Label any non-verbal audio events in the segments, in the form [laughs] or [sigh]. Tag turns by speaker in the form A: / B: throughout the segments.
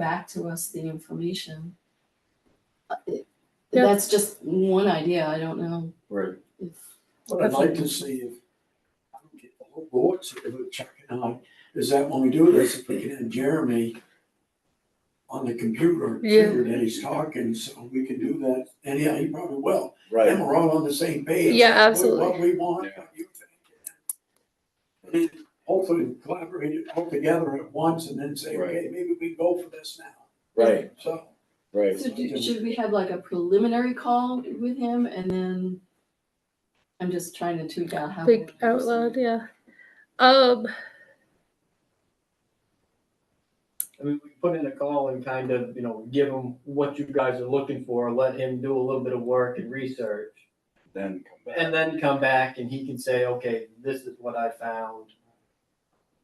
A: back to us the information. Uh, it-
B: Yeah.
A: That's just one idea, I don't know
C: Right.
A: if,
D: What I'd like to see if, I don't get the whole board to do it, Chuck and I, is that when we do this, if we can have Jeremy on the computer,
B: Yeah.
D: figure that he's talking, so we can do that, and yeah, he probably will. Then
C: Right.
D: we're all on the same page.
B: Yeah,
D: What-
B: absolutely.
D: What we want,
C: Yeah.
D: what you think. And then hopefully collaborate it all together at once and then say,
C: Right.
D: okay, maybe we go for this now,
C: Right.
D: so.
C: Right.
A: so do, should we have like a preliminary call with him and then? I'm just trying to tweak out how. we
B: Think
A: wanna
B: out
A: proceed.
B: loud, yeah. Um,
E: I mean, we put in a call and kind of, you know, give him what you guys are looking for, let him do a little bit of work and research.
C: Then come back.
E: And then come back and he can say, okay, this is what I found.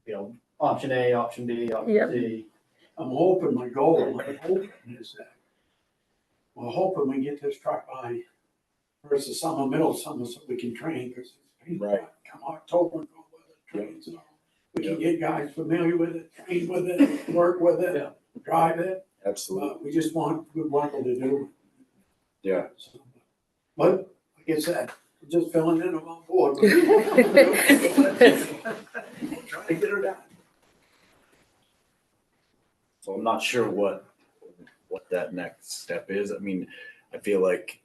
E: You know, option A, option B,
B: Yep.
E: option C.
D: I'm hoping my goal, my hope is that, we're hoping we get this truck by first of summer, middle of summer, so we can train, because it's painful.
C: Right.
D: Come October, go with it, trains and all. We can get guys familiar with it, train with it, work with it,
E: Yeah.
D: drive it,
C: Absolutely.
D: but we just want good people to do it.
C: Yeah.
D: So, But, like I said, we're just filling in on [laughs] board. Trying to get her done.
C: So I'm not sure what what that next step is. I mean, I feel like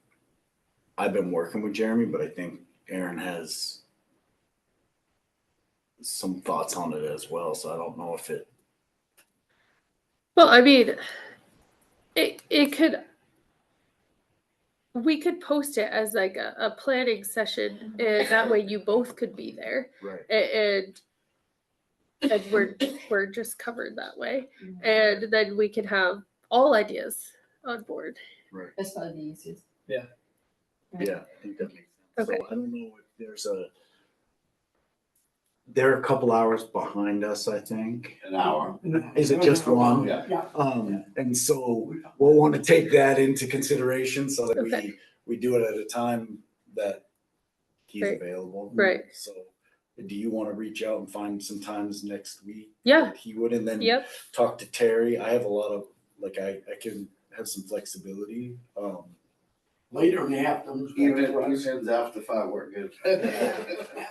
C: I've been working with Jeremy, but I think Aaron has some thoughts on it as well. So I don't know if it
B: well, I mean, it it could. We could post it as like a, a planning session, and that way you both could be there,
C: right.
B: a- and and we're we're just covered that way, and then we can have all ideas on board.
A: That's probably the easiest.
C: Yeah, I think that makes sense.
B: Okay.
C: So I don't know if there's a they're a couple hours behind us, I think.
F: an hour.
C: Is it just one?
D: Yeah. Yeah.
C: Um, and so we'll want to take that into consideration so that we,
B: Okay.
C: we do it at a time that he's
B: Right.
C: available.
B: Right.
C: So do you want to reach out and find some times next week?
B: Yeah.
C: that He would, and then
B: Yep.
C: talk to Terry. I have a lot of, like, I, I can have some flexibility. Um,
D: Later in the afternoon.
F: Even weekends after five were [laughs] good.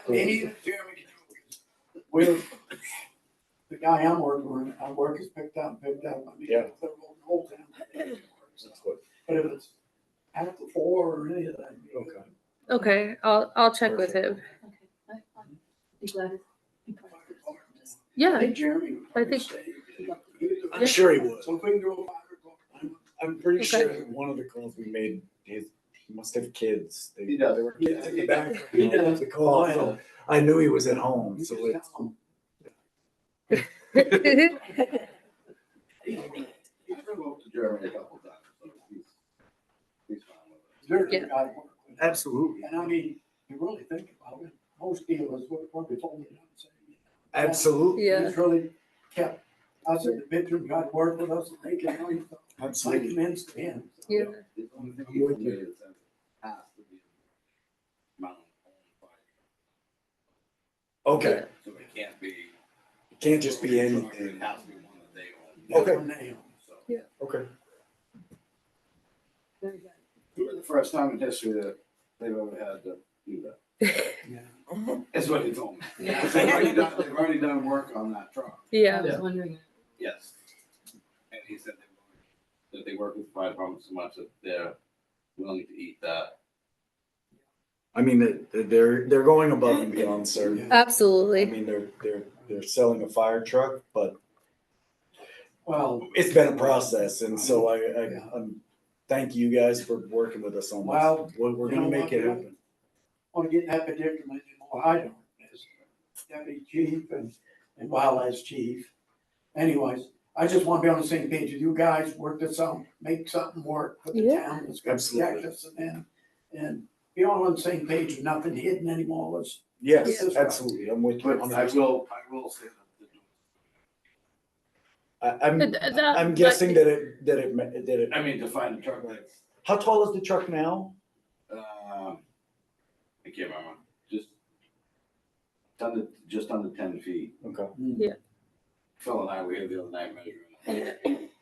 D: Maybe Jeremy can- We're, the guy I'm working with, I work is picked up, picked up. I mean,
C: Yeah.
D: they're going to hold down.
C: that's what,
D: But if it's after four or any of that. you know,
C: Okay.
B: Okay, I'll I'll check with
C: Perfect.
B: him.
A: Okay, I, I'll be glad if. be part of this. Just-
D: I
B: Yeah. [laughs]
D: think Jeremy. would probably
B: I think-
D: stay.
C: I'm sure he would.
D: So if we can do a five o'clock, I'm-
C: I'm pretty
B: Okay.
C: sure that one of the calls we made, his, he must have kids. They-
F: He does.
C: They were kids in the back.
D: He does.
C: The call, so I knew he was at home,
D: you
C: so
D: just
C: it's.
D: tell him.
F: He's moved to Germany a couple times, so he's, he's fine with it.
D: Jeremy
B: Yeah.
D: got to work with.
C: Absolutely.
D: And I mean, you really think about it, most dealers would probably told me that. so, yeah.
C: Absolutely.
B: Yeah.
D: He's really kept us in the bedroom, God worked with us, and they can only, I
C: Absolutely.
D: commends to him.
B: Yeah.
F: The only thing he can do is that it has to be mounted on fire.
C: Okay.
F: So it can't be.
C: It can't just be
F: It
C: anything.
F: has to be one that they own.
C: Okay.
D: One nail.
F: So
C: Okay.
A: Very good.
F: it's the first time in history that they've ever had to do that.
D: Yeah.
C: Uh-huh.
F: That's what he told me. [laughs]
A: Yeah.
F: They've already done, they've already done work on that truck.
A: I [laughs]
B: Yeah.
A: was wondering,
F: Yes. And he said they, that they work with the fire department so much that they're willing to eat that.
C: I mean, they- they're, they're going above and beyond, sir. I
B: Absolutely.
C: mean, they're, they're, they're selling a fire truck, but
D: Well,
C: it's been a process. And so I,
D: Yeah.
C: I, I'm, thank you guys for working with us on
D: Well,
C: this. We're, we're
D: you
C: gonna
D: know
C: make
D: what,
C: it
D: Bill?
C: happen.
D: want to get that predicament anymore, I don't, as deputy chief and, and wildlife chief. Anyways, I just want to be on the same page with you guys, work this out, make something work for the
B: Yeah.
D: town, that's gonna protect
C: Absolutely.
D: us and then, and be all on the same page, nothing hidden anymore, let's
C: Yes,
D: Yeah.
C: absolutely. I'm with you.
F: But I
C: 100%.
F: will, I will say
C: I,
F: that.
C: I'm,
B: Th- th- that-
C: I'm guessing that it, that it, ma- that it,
F: I mean, to find a truck that's,
C: how tall is the truck now?
F: um, I can't remember, just under, just under ten feet.
C: Okay.
B: Yeah.
F: Phil and I were here the other night measuring. it.